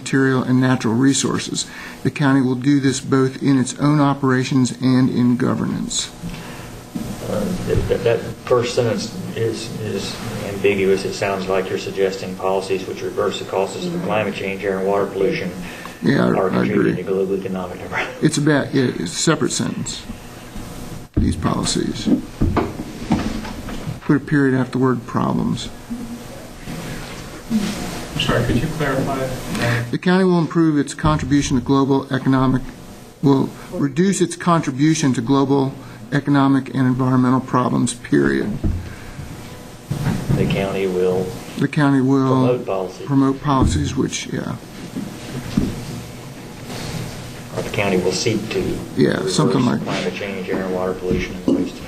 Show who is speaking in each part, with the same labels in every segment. Speaker 1: material and natural resources. The county will do this both in its own operations and in governance.
Speaker 2: Uh, That that- that first sentence is is ambiguous. It sounds like you're suggesting policies which reverse the causes
Speaker 3: Mm-hmm.
Speaker 2: of climate change, air and water pollution
Speaker 1: Yeah, I-
Speaker 2: are
Speaker 1: I
Speaker 2: contributing to
Speaker 1: agree.
Speaker 2: global economic development.
Speaker 1: It's about, yeah, it's a separate sentence, these policies. Put a period after the word problems.
Speaker 4: I'm sorry, could you clarify?
Speaker 1: The county will improve its contribution to global economic, will reduce its contribution to global economic and environmental problems, period.
Speaker 2: The county will
Speaker 1: The county will
Speaker 2: promote policies,
Speaker 1: promote policies which, yeah,
Speaker 2: or the county will seek to
Speaker 1: Yeah, something
Speaker 2: reverse
Speaker 1: like-
Speaker 2: climate change, air and water pollution, and waste of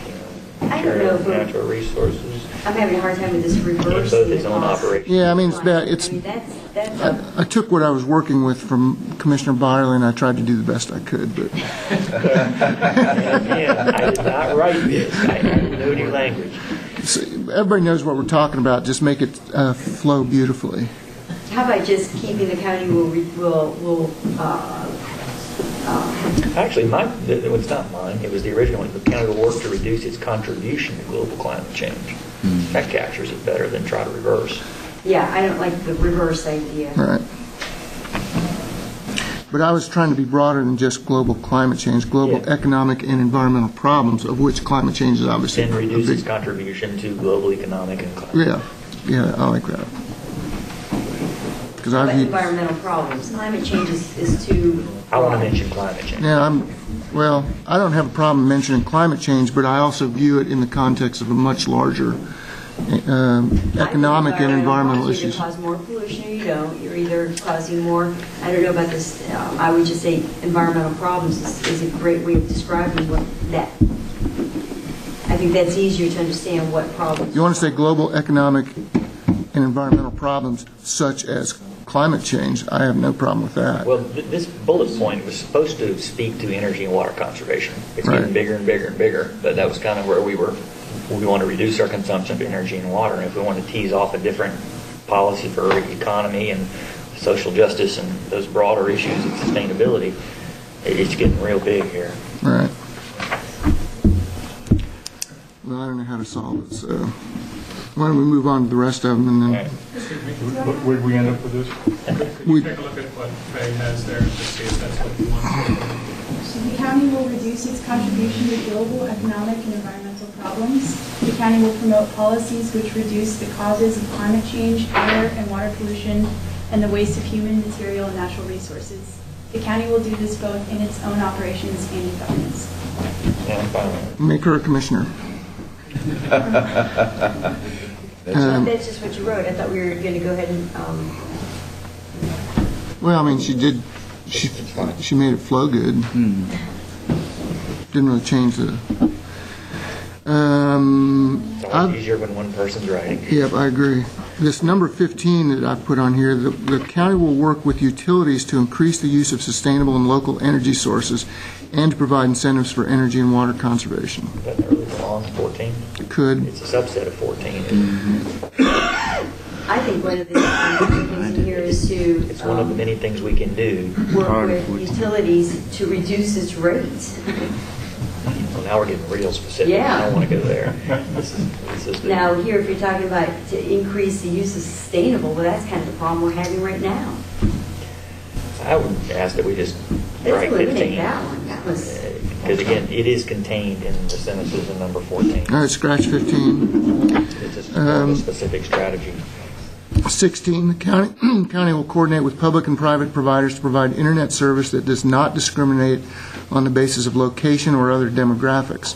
Speaker 3: I don't know
Speaker 2: material
Speaker 3: if
Speaker 2: and
Speaker 3: we're-
Speaker 2: natural resources.
Speaker 3: I'm having a hard time with this
Speaker 2: in
Speaker 3: reverse.
Speaker 2: both his own operations.
Speaker 1: Yeah, I mean, it's bad, it's,
Speaker 3: I mean, that's, that's,
Speaker 1: I
Speaker 3: a-
Speaker 1: I took what I was working with from Commissioner Byerly, and I tried to do the best I could, but,
Speaker 2: And again, I did not write this. I have no new language.
Speaker 1: so, everybody knows what we're talking about, just make it uh, flow beautifully.
Speaker 3: how about just keeping the county will, re- will, will, uh,
Speaker 2: Actually, my, it was not mine, it was the original one, the county will work to reduce its contribution to global climate change.
Speaker 1: Hmm.
Speaker 2: That captures it better than try to reverse.
Speaker 3: yeah, I don't like the reverse idea.
Speaker 1: All right. But I was trying to be broader than just global climate change, global
Speaker 2: Yeah.
Speaker 1: economic and environmental problems, of which climate change is obviously a
Speaker 2: And reduce its
Speaker 1: big...
Speaker 2: contribution to global economic and climate.
Speaker 1: Yeah, yeah, I like that. Because I
Speaker 3: But
Speaker 1: view,
Speaker 3: environmental problems, climate change is, is too.
Speaker 2: I want to
Speaker 3: broad.
Speaker 2: mention climate change.
Speaker 1: yeah, I'm, well, I don't have a problem mentioning climate change, but I also view it in the context of a much larger um,
Speaker 3: I think
Speaker 1: economic and environmental
Speaker 3: problems
Speaker 1: issues.
Speaker 3: Either cause more pollution or you don't, you're either causing more, I don't know about this, um, I would just say environmental problems is, is a great way of describing what that, I think that's easier to understand what problems.
Speaker 1: You want to say global economic and environmental problems such as climate change, I have no problem with that.
Speaker 2: Well, th- this bullet point was supposed to speak to energy and water conservation. It's getting
Speaker 1: Right.
Speaker 2: bigger and bigger and bigger, but that was kind of where we were, we want to reduce our consumption of energy and water. And if we want to tease off a different policy for economy and social justice and those broader issues of sustainability, it- it's getting real big here.
Speaker 1: Right. Well, I don't know how to solve it, so why don't we move on to the rest of them and then,
Speaker 4: Excuse me, wh- where'd we end up with this? Could you
Speaker 1: We-
Speaker 4: take a look at what Fay has there and just see if that's what you want?
Speaker 5: So The county will reduce its contribution to global economic and environmental problems. The county will promote policies which reduce the causes of climate change, air and water pollution, and the waste of human material and natural resources. The county will do this both in its own operations and in governance.
Speaker 2: Yeah, I'm fine with it.
Speaker 1: make her a commissioner. Um,
Speaker 3: That's just what you wrote, I thought we were going to go ahead and, um,
Speaker 1: Well, I mean, she did, she, she made it flow good. Didn't really change the, um,
Speaker 2: It's
Speaker 1: I've-
Speaker 2: always easier when one person's writing.
Speaker 1: Yep, I agree. This number 15 that I've put on here, the- the county will work with utilities to increase the use of sustainable and local energy sources and to provide incentives for energy and water conservation.
Speaker 2: Doesn't really belong to 14.
Speaker 1: Could, Mm-hmm.
Speaker 2: It's a subset of 14.
Speaker 3: I think one of the um, things in here is to.
Speaker 2: It's one of the
Speaker 3: um,
Speaker 2: many things we can do.
Speaker 3: Work with utilities to reduce its rates.
Speaker 2: Well, now we're getting real specific.
Speaker 3: Yeah.
Speaker 2: I don't want to go there. This is, this is the-
Speaker 3: Now, here, if you're talking about to increase the use of sustainable, well, that's kind of the problem we're having right now.
Speaker 2: I would ask that we just
Speaker 3: Let's
Speaker 2: write
Speaker 3: eliminate
Speaker 2: 15.
Speaker 3: that one, that was.
Speaker 2: Because again, it is contained in the sentences in number 14.
Speaker 1: all right, scratch 15.
Speaker 2: It's just more of a
Speaker 1: Um,
Speaker 2: specific strategy.
Speaker 1: 16, the county, county will coordinate with public and private providers to provide internet service that does not discriminate on the basis of location or other demographics.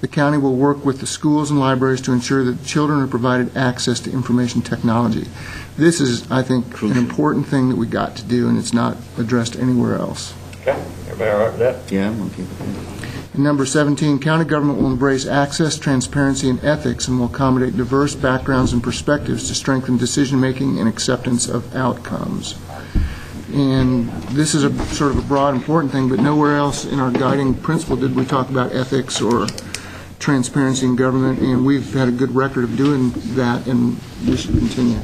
Speaker 1: The county will work with the schools and libraries to ensure that children are provided access to information technology. This is, I think, an important thing that we got to do, and it's not addressed anywhere else.
Speaker 2: Okay, everybody all right with that?
Speaker 6: Yeah, I'm okay with that.
Speaker 1: And Number 17, county government will embrace access, transparency, and ethics and will accommodate diverse backgrounds and perspectives to strengthen decision-making and acceptance of outcomes. And this is a sort of a broad, important thing, but nowhere else in our guiding principle did we talk about ethics or transparency in government, and we've had a good record of doing that, and we should continue.